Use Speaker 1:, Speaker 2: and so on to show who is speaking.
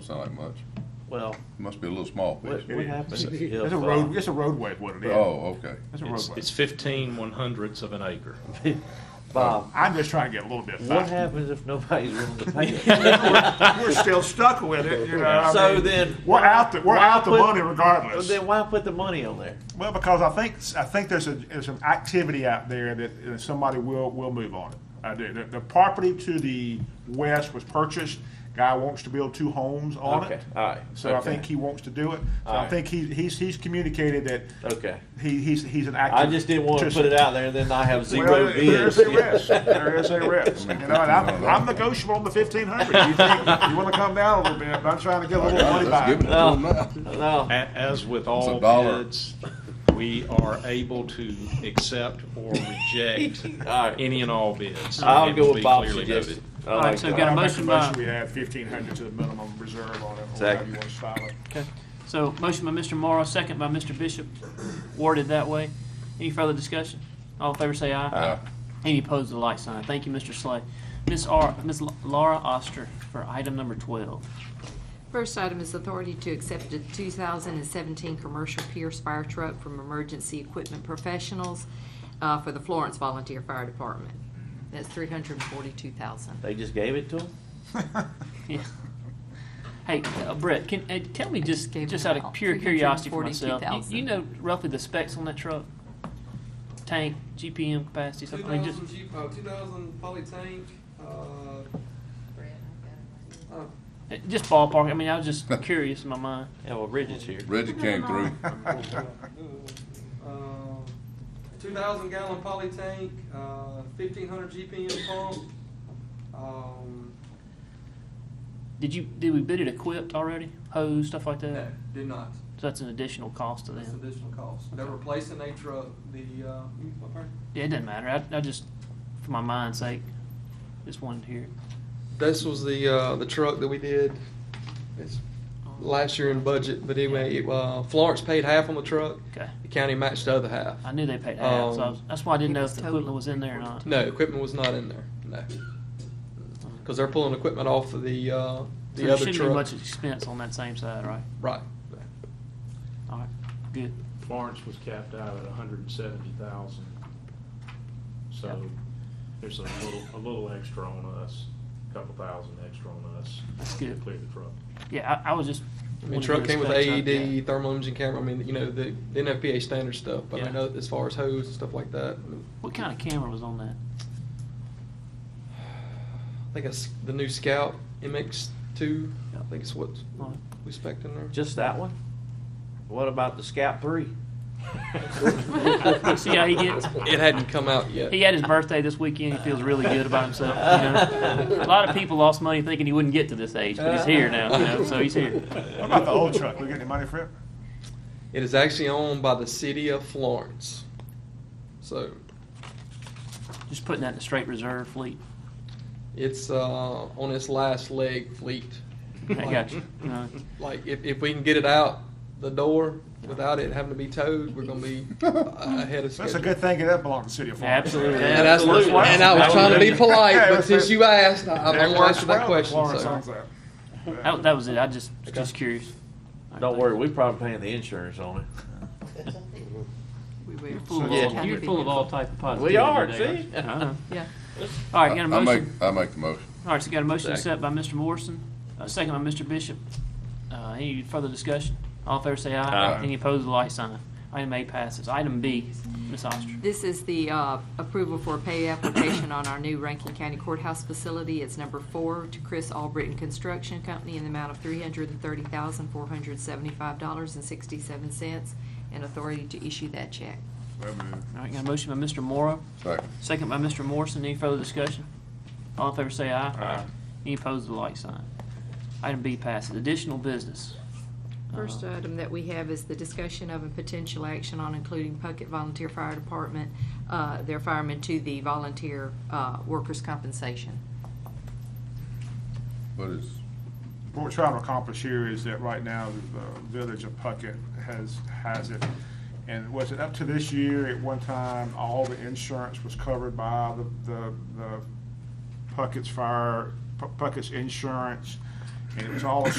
Speaker 1: sound like much.
Speaker 2: Well,
Speaker 1: Must be a little small piece.
Speaker 2: what, what happens if?
Speaker 3: It's a
Speaker 2: uh,
Speaker 3: road, it's a roadway is what it is.
Speaker 1: Oh, okay.
Speaker 3: It's a
Speaker 4: It's,
Speaker 3: roadway.
Speaker 4: it's fifteen one hundredths of an acre.
Speaker 2: Bob,
Speaker 3: I'm just trying to get a little bit
Speaker 2: what
Speaker 3: faster.
Speaker 2: happens if nobody's willing to pay it?
Speaker 3: We're still stuck with it, you know. I
Speaker 2: So
Speaker 3: mean,
Speaker 2: then.
Speaker 3: We're out, the we're
Speaker 2: why
Speaker 3: out the
Speaker 2: put-
Speaker 3: money regardless.
Speaker 2: Then why put the money on there?
Speaker 3: Well, because I think, I think there's a, there's an activity out there that uh, somebody will, will move on it. I do. The, the property to the west was purchased, guy wants to build two homes on it.
Speaker 2: Okay, all right,
Speaker 3: So I
Speaker 2: okay.
Speaker 3: think he wants to do it. So I
Speaker 2: Alright.
Speaker 3: think he, he's, he's communicated that
Speaker 2: Okay.
Speaker 3: he, he's, he's an
Speaker 2: I
Speaker 3: active.
Speaker 2: just didn't want to put it out there, and then I have zero
Speaker 3: Well, there is
Speaker 2: bids.
Speaker 3: a risk, there is a risk, you know, and I'm,
Speaker 1: No, no.
Speaker 3: I'm negotiable on the fifteen hundred. You think, you wanna come down a little bit, but I'm trying to get a
Speaker 1: I
Speaker 3: little
Speaker 1: got
Speaker 3: money
Speaker 1: it. Let's give it
Speaker 3: back.
Speaker 1: to them now.
Speaker 2: No,
Speaker 4: A- As with
Speaker 1: It's
Speaker 4: all
Speaker 1: a dollar.
Speaker 4: bids, we are able to accept or reject
Speaker 2: All right.
Speaker 4: any and all bids.
Speaker 2: I'll
Speaker 4: It
Speaker 2: go
Speaker 4: will
Speaker 2: with
Speaker 4: be
Speaker 2: Bob's
Speaker 4: clearly
Speaker 2: suggestion. Oh,
Speaker 4: noted.
Speaker 2: I
Speaker 5: All
Speaker 2: like
Speaker 5: right, so
Speaker 2: that.
Speaker 5: we got a
Speaker 3: I make
Speaker 5: motion by,
Speaker 3: We add fifteen hundred to the minimum reserve on it, or however
Speaker 2: Second.
Speaker 3: you wanna style it.
Speaker 5: so motion by Mr. Morrow, second by Mr. Bishop, worded that way. Any further discussion? All in favor say aye.
Speaker 1: Aye.
Speaker 5: Any opposed, the light sign. Thank you, Mr. Slay. Miss R, Miss La- Laura Oster for item number twelve.
Speaker 6: First item is authority to accept a 2017 commercial Pierce fire truck from Emergency Equipment Professionals uh, for the Florence Volunteer Fire Department. That's 342,000.
Speaker 2: They just gave it to him?
Speaker 5: Yeah. Hey, uh, Brett, can, uh, tell me just,
Speaker 6: gave
Speaker 5: just
Speaker 6: him
Speaker 5: out of
Speaker 6: about
Speaker 5: pure curiosity for myself, you-
Speaker 6: 342,000.
Speaker 5: you know roughly the specs on that truck? Tank, GPM capacity,
Speaker 7: Two
Speaker 5: something, I mean,
Speaker 7: thousand
Speaker 5: just,
Speaker 7: Jeep, uh, two thousand poly tank, uh, uh,
Speaker 5: uh, just ballpark, I mean, I was just curious in my mind.
Speaker 2: Yeah, well, Bridget's here.
Speaker 1: Reggie came through.
Speaker 7: uh, two thousand gallon poly tank, uh, fifteen hundred GPM pump. Um,
Speaker 5: Did you, did we bid it equipped already? Hose, stuff like
Speaker 7: no,
Speaker 5: that?
Speaker 7: do not,
Speaker 5: So that's an additional cost to
Speaker 7: that's
Speaker 5: them.
Speaker 7: additional cost. They're replacing a truck, the, uh, what part?
Speaker 5: Yeah, it doesn't matter, I, I just, for my mind's sake, just wanted to hear it.
Speaker 7: This was the, uh, the truck that we did, it's
Speaker 5: Oh.
Speaker 7: last year in budget, but anyway, it, uh, Florence paid half on the truck.
Speaker 5: Okay.
Speaker 7: The county matched the other half.
Speaker 5: I knew they paid half, so I was-
Speaker 7: Um,
Speaker 5: that's why I didn't know
Speaker 6: It
Speaker 5: if
Speaker 6: was
Speaker 5: the
Speaker 6: total
Speaker 5: equipment was in there or not.
Speaker 7: No, equipment was not in there. No, because they're pulling equipment off of the uh, the
Speaker 5: So there
Speaker 7: other
Speaker 5: shouldn't be
Speaker 7: truck.
Speaker 5: much expense on that same side, right?
Speaker 7: Right.
Speaker 5: All right, good.
Speaker 4: Florence was capped out at a hundred and seventy thousand. So
Speaker 5: Yep.
Speaker 4: there's a little, a little extra on us, a couple thousand extra on us.
Speaker 5: That's
Speaker 4: to
Speaker 5: good.
Speaker 4: Clear the truck.
Speaker 5: Yeah, I, I was just.
Speaker 7: I
Speaker 5: wanted
Speaker 7: mean,
Speaker 5: to
Speaker 7: truck
Speaker 5: get
Speaker 7: came with E
Speaker 5: specs on-
Speaker 7: AED,
Speaker 5: yeah.
Speaker 7: thermal imaging camera. I mean, you know the, the NFPA standard stuff. But
Speaker 5: Yeah.
Speaker 7: I know as far as hose and stuff like that, I, mean,
Speaker 5: What kind of camera was on that?
Speaker 7: I think it's the new Scout MX two. I
Speaker 5: Yeah.
Speaker 7: think it's what
Speaker 5: Right.
Speaker 7: we spec in there.
Speaker 2: Just that one? What about the Scout Three?
Speaker 5: See how he gets?
Speaker 7: it hadn't come out yet.
Speaker 5: He had his birthday this weekend. He feels really good about himself. You know? A lot of people lost money thinking he wouldn't get to this age, but he's here now. You know? So he's here.
Speaker 3: What about the old truck, we get any money for it?
Speaker 7: It is actually owned by the city of Florence. So
Speaker 5: Just putting that in the straight reserve fleet.
Speaker 7: it's uh, on its last leg fleet.
Speaker 5: I got you. you know.
Speaker 7: like if, if we can get it out the door without it having to be towed, we're gonna be ahead of schedule.
Speaker 3: That's a good thing, that belongs to the city of Florence.
Speaker 5: Absolutely.
Speaker 7: And, that's,
Speaker 5: Absolutely.
Speaker 7: and I was trying to be polite,
Speaker 3: Yeah, it
Speaker 7: but
Speaker 3: was-
Speaker 7: since you asked, I, I'm
Speaker 3: That
Speaker 7: gonna
Speaker 3: works
Speaker 7: answer
Speaker 3: well
Speaker 7: that
Speaker 3: if
Speaker 7: question.
Speaker 3: Florence owns
Speaker 7: So.
Speaker 3: that.
Speaker 5: That, that was it. I just was just
Speaker 7: Okay.
Speaker 5: curious.
Speaker 2: Don't worry, we probably paying the insurance on it.
Speaker 6: We will.
Speaker 5: You're full,
Speaker 2: Yeah.
Speaker 5: of, all, you're full of all type of positivity.
Speaker 2: We are,
Speaker 5: today,
Speaker 2: see?
Speaker 5: aren't you? Uh-huh.
Speaker 6: Yeah.
Speaker 5: All right, got a
Speaker 1: I
Speaker 5: motion.
Speaker 1: make, I make the motion.
Speaker 5: All right, so got a motion to
Speaker 2: Second.
Speaker 5: accept by Mr. Morrison, a second by Mr. Bishop. Uh, any further discussion? All in favor say aye.
Speaker 2: Aye.
Speaker 5: Any opposed, the light sign. Item A passes. Item B, Ms. Oster.
Speaker 6: This is the uh, approval for a pay application on our new Rankin County Courthouse facility. It's number four to Chris Albritton Construction Company in the amount of $330,475.67 and authority to issue that check.
Speaker 5: All right, got a motion by Mr. Morrow,
Speaker 1: Second.
Speaker 5: second by Mr. Morrison. Any further discussion? All in favor say aye. Aye. Any opposed, the light sign. Item B passes. Additional business.
Speaker 6: First
Speaker 5: Uh,
Speaker 6: item that we have is the discussion of and potential action on including Puckett Volunteer Fire Department, uh, their firemen to the volunteer uh, workers' compensation.
Speaker 1: But it's,
Speaker 3: What we're trying to accomplish here is that right now, the village of Puckett has, has it. And was it up to this year, at one time, all the insurance was covered by the, the, the Puckett's fire, Puckett's insurance? And it was all